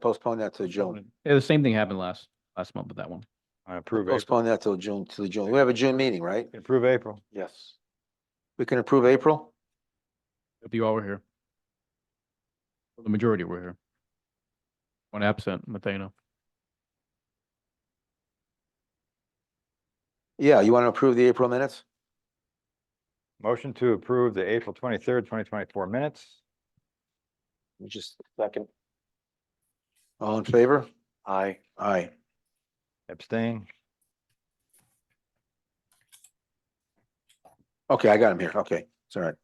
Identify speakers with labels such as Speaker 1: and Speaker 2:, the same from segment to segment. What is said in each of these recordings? Speaker 1: Postpone that to June.
Speaker 2: Yeah, the same thing happened last, last month with that one.
Speaker 3: I approve April.
Speaker 1: Postpone that till June, to the June. We have a June meeting, right?
Speaker 3: Approve April.
Speaker 1: Yes. We can approve April?
Speaker 2: If you all were here. The majority were here. One absent, Mathena.
Speaker 1: Yeah, you want to approve the April minutes?
Speaker 3: Motion to approve the April twenty-third, twenty twenty-four minutes.
Speaker 1: We Just second. All in favor?
Speaker 3: Aye.
Speaker 1: Aye.
Speaker 3: Abstain.
Speaker 1: Okay, I got him here. Okay, it's all right.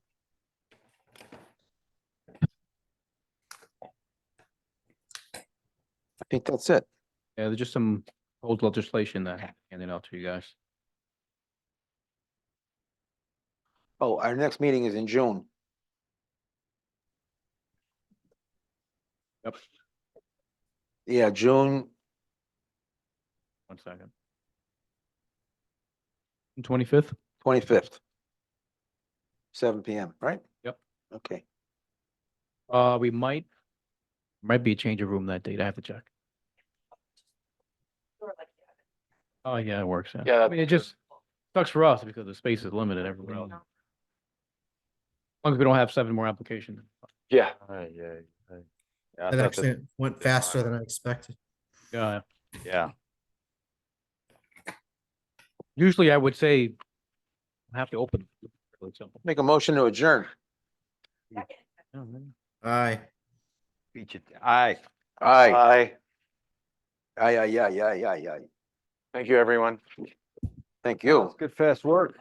Speaker 1: I think that's it.
Speaker 2: Yeah, there's just some old legislation that I handed out to you guys.
Speaker 1: Oh, our next meeting is in June.
Speaker 2: Yep.
Speaker 1: Yeah, June,
Speaker 2: One second. Twenty-fifth?
Speaker 1: Twenty-fifth. Seven PM, right?
Speaker 2: Yep.
Speaker 1: Okay,
Speaker 2: Uh, we might, might be a change of room that date. I have to check. Oh, yeah, it works.
Speaker 4: Yeah,
Speaker 2: I mean, it just sucks for us because the space is limited everywhere else. As long as we don't have seven more applications.
Speaker 4: Yeah,
Speaker 3: Yeah. I
Speaker 5: That
Speaker 3: thought
Speaker 5: actually
Speaker 3: that-
Speaker 5: went faster than I expected.
Speaker 2: Yeah.
Speaker 3: Yeah,
Speaker 2: Usually I would say I have to open. it, for example.
Speaker 1: make a motion to adjourn.
Speaker 5: Aye.
Speaker 3: beat you. Aye.
Speaker 1: Aye.
Speaker 4: aye.
Speaker 1: Aye, aye, aye, aye, aye, aye.
Speaker 4: Thank you, everyone.
Speaker 1: Thank you.
Speaker 3: Good fast work.